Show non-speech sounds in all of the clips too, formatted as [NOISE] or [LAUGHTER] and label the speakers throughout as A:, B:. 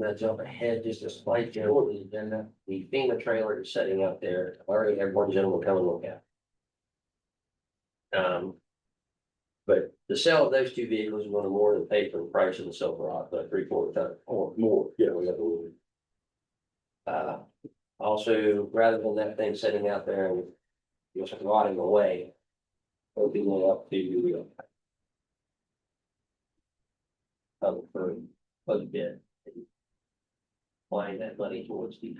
A: gonna jump ahead just a slight bit on the agenda. The FEMA trailer is setting up there. I already had one gentleman come and look at. it. Um. But the sale of those two vehicles is gonna more than pay for the price of the Silverado, but three quarter ton or more.
B: Yeah.
A: we got the wood. Uh, also, rather than that thing sitting out there and just rotting away. Opening it up to uh, public for public bid. and Applying that money towards these.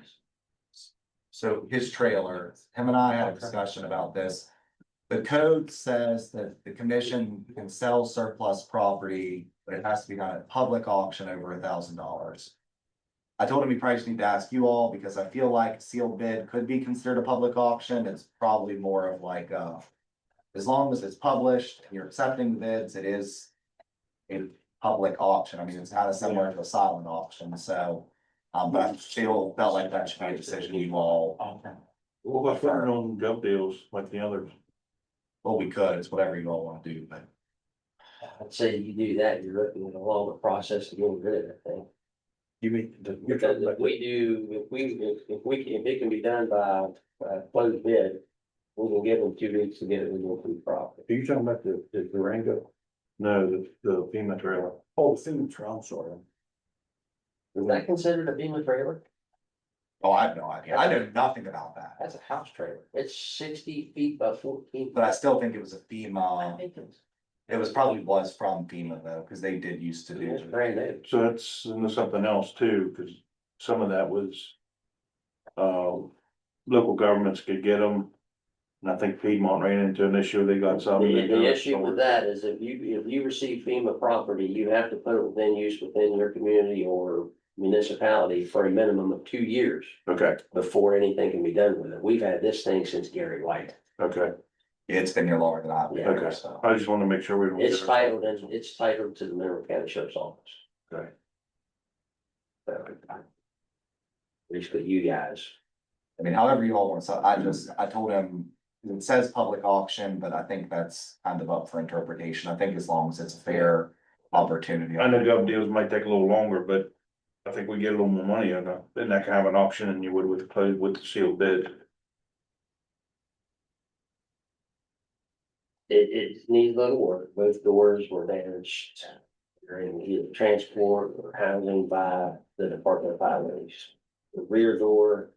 C: So his trailer, him and I had a discussion about this. The code says that the commission can sell surplus property, but it has to be done at public auction over a thousand dollars. I told him he probably just need to ask you all, because I feel like sealed bid could be considered a public auction, it's probably more of like, uh. As long as it's published and you're accepting bids, it is. A public auction, I mean, it's kind of similar to a silent auction, so. Um, but I feel, felt like that should be a decision you all
B: What about putting it on gov deals like the others?
C: Well, we could, it's whatever you all wanna do, but
A: I'd say you do that, you're looking at a longer process to get rid of that thing.
B: You mean, the- you're
A: Because
B: talking
A: if
B: about-
A: we do, if we, if, if we, if it can be done by, uh, closed bid, we can give them two weeks to get it legal through property.
B: are you talking about the, the Durango? No, the, the FEMA trailer. Oh, FEMA trailer, I'm sorry.
A: Is that considered a FEMA trailer?
C: oh, I have no idea, I know nothing about that.
A: That's a house trailer. It's sixty feet by fourteen.
C: But I still think it was a
A: I
C: FEMA,
A: think it's-
C: it was probably was from FEMA though, cause they did used to
A: It's
C: do.
A: brand new.
B: So that's and there's something else too, because some of that was. Uh, local governments could get them. And I think Piedmont ran into an issue, they got some.
A: The, the issue with that is if you, if you receive FEMA property, you have to put it within use within your community or municipality for a minimum of two years
B: Okay,
A: before anything can be done with it. We've had this thing since Gary White.
B: okay,
C: It's been here longer than I've been here,
B: Okay.
C: so.
B: I just wanted to make sure we. don't get
A: It's
B: our-
A: titled, and it's titled to the Mineral County Sheriff's Office.
B: Okay.
A: So, At least with you guys.
C: I mean, however you all want, so I just, I told him, it says public auction, but I think that's kind of up for interpretation, I think as long as it's a fair opportunity.
B: I know gov deals might take a little longer, but I think we get a little more money on that, then I can have an auction than you would with the closed, with the sealed bid.
A: It, it needs a little work. Both doors were damaged during either transport or housing by the Department of Highways. The rear door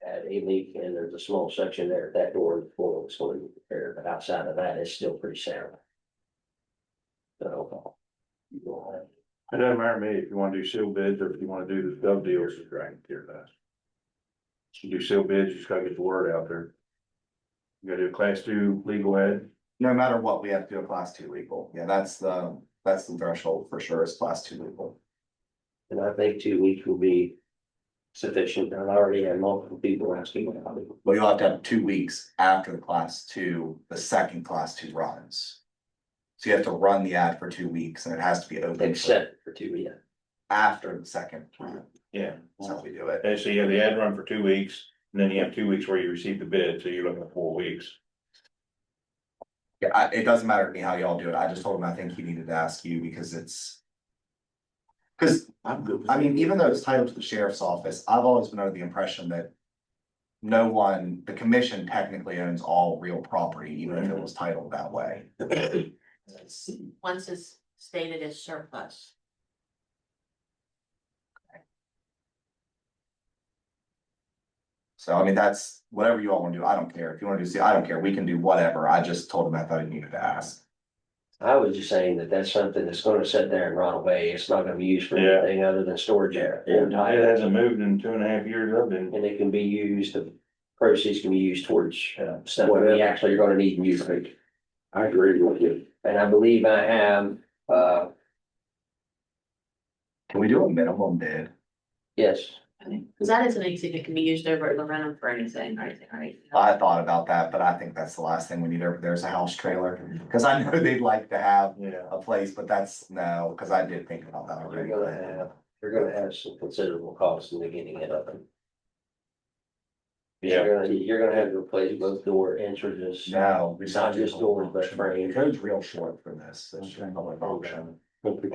A: had a leak and there's a small section there. That door was going to be repaired, but outside of that, it's still pretty sound. So. you don't have-
B: It doesn't matter to me if you wanna do sealed bids or if you wanna do the gov deals, it's right here, that. You do sealed bids, you just gotta get the word out there. You gotta do a class two legal ed,
C: No matter what, we have to do a class two legal, yeah, that's the, that's the threshold for sure, is class two legal.
A: And I think two weeks will be sufficient. I've already had multiple people asking about it.
C: Well, you'll have to have two weeks after the class two, the second class two runs. So you have to run the ad for two weeks and it has to be open for-
A: Except for two, yeah.
C: after the second. run.
B: yeah.
C: That's how we do it.
B: And so you have the ad run for two weeks, and then you have two weeks where you receive the bid, so you're looking at four weeks.
C: Yeah, I, it doesn't matter to me how y'all do it. I just told him I think he needed to ask you because it's. Cause
B: I'm good.
C: I mean, even though it's titled to the sheriff's office, I've always been under the impression that. No one, the commission technically owns all real property, even if it was titled that way.
D: once it's stated as surplus.
C: So I mean, that's whatever you all wanna do. I don't care. If you wanna do, see, I don't care. We can do whatever. I just told him I thought he needed to ask.
A: I was just saying that that's something that's gonna sit there and rot away. It's not gonna be used for
B: Yeah.
A: anything other than storage area.
B: It hasn't moved in two and a half years, I've been.
A: And it can be used, the proceeds can be used towards uh, stuff that we actually are gonna need and use. I agree with you. And I believe I have, uh,
C: Can we do a minimum bid?
A: yes,
D: Cause that isn't anything that can be used over at the rental for anything or anything, right?
C: I thought about that, but I think that's the last thing we need over there is a house trailer, cause I know [LAUGHS] they'd like to have
B: Yeah.
C: a place, but that's no, cause I did think about that
A: you're
C: already.
A: gonna have, you're gonna have some considerable costs in the getting it up. You're gonna, you're gonna have to replace both door entrances.
C: No. we
A: Not just doors, but frames.
C: Code's real short for this, it's just public auction.